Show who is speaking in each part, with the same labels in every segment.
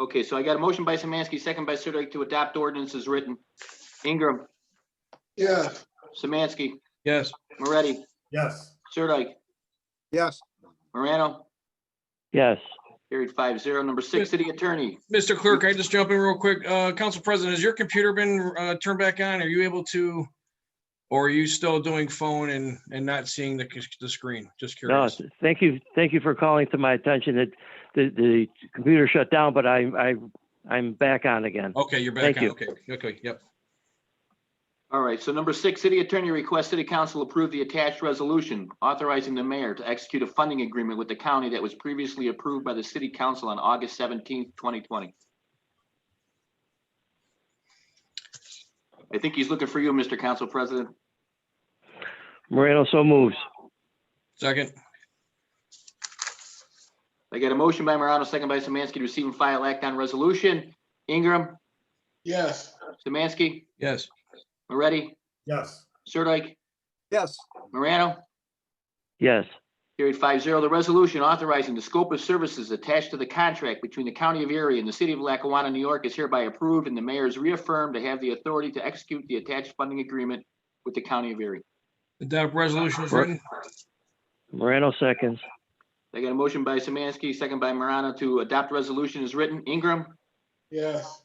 Speaker 1: Okay, so I got a motion by Samansky, second by Sirdike to adopt ordinance as written. Ingram,
Speaker 2: Yeah.
Speaker 1: Samansky,
Speaker 3: Yes.
Speaker 1: Moretti,
Speaker 4: yes,
Speaker 1: Sirdike,
Speaker 2: Yes.
Speaker 1: Morano,
Speaker 5: yes,
Speaker 1: carried five zero. Number six, city attorney.
Speaker 3: Mr. Clerk, I just jump in real quick. Uh, Council President, has your computer been, uh, turned back on? Are you able to? Or are you still doing phone and, and not seeing the, c- the screen? Just
Speaker 5: no,
Speaker 3: curious.
Speaker 5: thank you, thank you for calling to my attention that the, the computer shut down, but I, I, I'm back on again.
Speaker 3: Okay, you're back
Speaker 5: Thank
Speaker 3: on.
Speaker 5: you.
Speaker 3: Okay, okay, yep.
Speaker 1: All right, so number six, city attorney requests city council approve the attached resolution authorizing the mayor to execute a funding agreement with the county that was previously approved by the city council on August seventeenth, twenty twenty. I think he's looking for you, Mr. Council President.
Speaker 5: Moreno so moves,
Speaker 3: Second,
Speaker 1: I got a motion by Morano, second by Samansky to receive and file act on resolution. Ingram,
Speaker 2: Yes.
Speaker 1: Samansky,
Speaker 3: yes,
Speaker 1: Moretti,
Speaker 4: yes,
Speaker 1: Sirdike,
Speaker 2: Yes.
Speaker 1: Morano.
Speaker 5: yes,
Speaker 1: Carried five zero, the resolution authorizing the scope of services attached to the contract between the County of Erie and the City of Lackawanna, New York is hereby approved and the mayor is reaffirmed to have the authority to execute the attached funding agreement with the County of Erie.
Speaker 3: adopt resolution is
Speaker 5: Right.
Speaker 3: written.
Speaker 5: Moreno seconds,
Speaker 1: I got a motion by Samansky, second by Morano to adopt resolution as written. Ingram,
Speaker 2: Yes.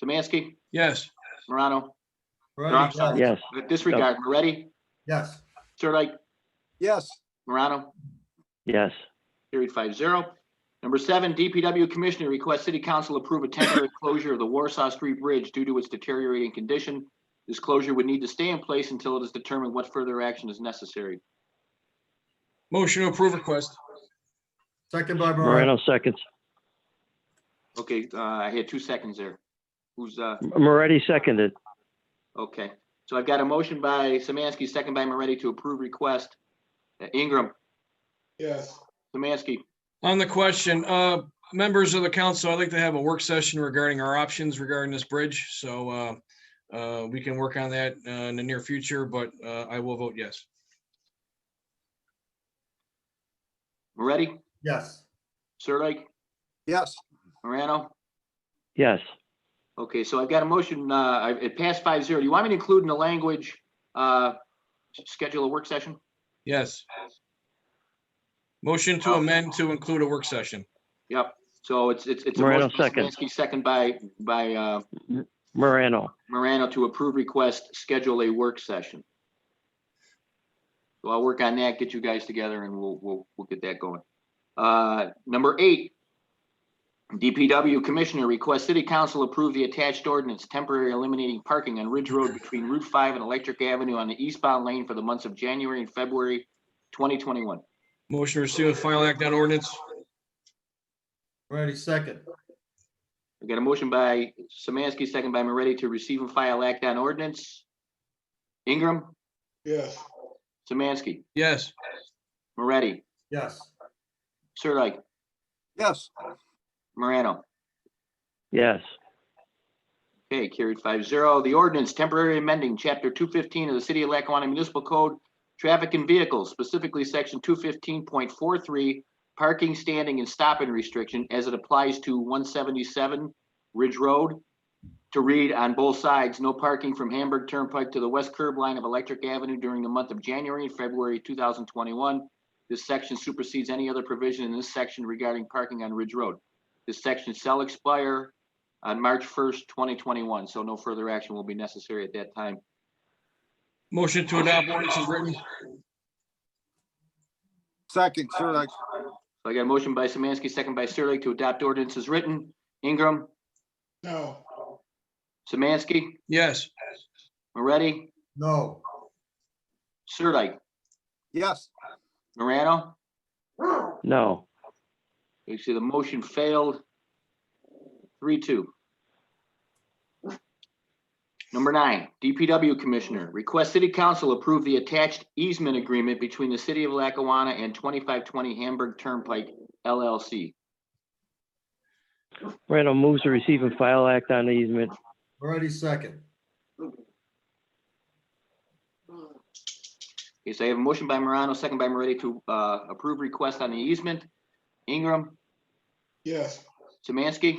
Speaker 1: Samansky,
Speaker 3: Yes,
Speaker 1: Morano,
Speaker 4: Moretti,
Speaker 1: Yes.
Speaker 5: yes,
Speaker 1: disregard, Moretti,
Speaker 4: yes,
Speaker 1: Sirdike,
Speaker 2: Yes.
Speaker 1: Morano.
Speaker 5: yes,
Speaker 1: Carried five zero. Number seven, DPW Commissioner requests City Council approve a temporary closure of the Warsaw Street Bridge due to its deteriorating condition. This closure would need to stay in place until it is determined what further action is necessary.
Speaker 3: motion to approve request.
Speaker 4: second by Moretti,
Speaker 5: Moreno seconds,
Speaker 1: Okay, uh, I had two seconds there. Who's, uh,
Speaker 5: Moretti seconded,
Speaker 1: okay. So I've got a motion by Samansky, second by Moretti to approve request. Uh, Ingram,
Speaker 2: Yes.
Speaker 1: Samansky,
Speaker 3: On the question, uh, members of the council, I'd like to have a work session regarding our options regarding this bridge. So, uh, uh, we can work on that, uh, in the near future, but, uh, I will vote yes.
Speaker 1: Moretti,
Speaker 4: yes,
Speaker 1: Sirdike,
Speaker 2: Yes.
Speaker 1: Morano.
Speaker 5: yes,
Speaker 1: Okay, so I've got a motion, uh, I- it passed five zero. Do you want me to include in the language, uh, schedule a work session?
Speaker 3: Yes. Motion to amend to include a work session.
Speaker 1: Yep, so it's, it's, it's. a
Speaker 5: Moreno,
Speaker 1: motion by
Speaker 5: second.
Speaker 1: Semansky, Second by, by, uh,
Speaker 5: Moreno,
Speaker 1: Morano to approve request, schedule a work session. So I'll work on that, get you guys together and we'll, we'll, we'll get that going. Uh, number eight. DPW Commissioner requests City Council approve the attached ordinance temporary eliminating parking on Ridge Road between Route Five and Electric Avenue on the eastbound lane for the months of January and February twenty twenty-one.
Speaker 3: Motion to receive and file act on ordinance.
Speaker 4: Moretti, second,
Speaker 1: We got a motion by Samansky, second by Moretti to receive and file act on ordinance. Ingram,
Speaker 2: Yes.
Speaker 1: Samansky,
Speaker 3: Yes,
Speaker 1: Moretti,
Speaker 4: yes,
Speaker 1: Sirdike,
Speaker 2: Yes.
Speaker 1: Morano.
Speaker 5: yes,
Speaker 1: Okay, carried five zero. The ordinance temporary amending chapter two fifteen of the city of Lackawanna Municipal Code, traffic and vehicles, specifically section two fifteen point four three, parking, standing and stopping restriction as it applies to one seventy-seven Ridge Road. To read on both sides, no parking from Hamburg Turnpike to the west curb line of Electric Avenue during the month of January and February two thousand twenty-one. This section supersedes any other provision in this section regarding parking on Ridge Road. This section shall expire on March first, twenty twenty-one, so no further action will be necessary at that time.
Speaker 3: motion to adopt ordinance is written.
Speaker 2: Second, Sirdike.
Speaker 1: So I got a motion by Samansky, second by Sirdike to adopt ordinance as written. Ingram,
Speaker 2: No.
Speaker 1: Samansky,
Speaker 3: Yes,
Speaker 1: Moretti,
Speaker 4: no,
Speaker 1: Sirdike,
Speaker 2: Yes.
Speaker 1: Morano.
Speaker 5: no,
Speaker 1: You see, the motion failed. Three, two. Number nine, DPW Commissioner, request City Council approve the attached easement agreement between the City of Lackawanna and twenty-five twenty Hamburg Turnpike LLC.
Speaker 5: Moreno moves to receive and file act on the easement,
Speaker 4: Moretti, second,
Speaker 1: Okay, so I have a motion by Morano, second by Moretti to uh, approve request on the easement. Ingram,
Speaker 2: Yes.
Speaker 1: Samansky,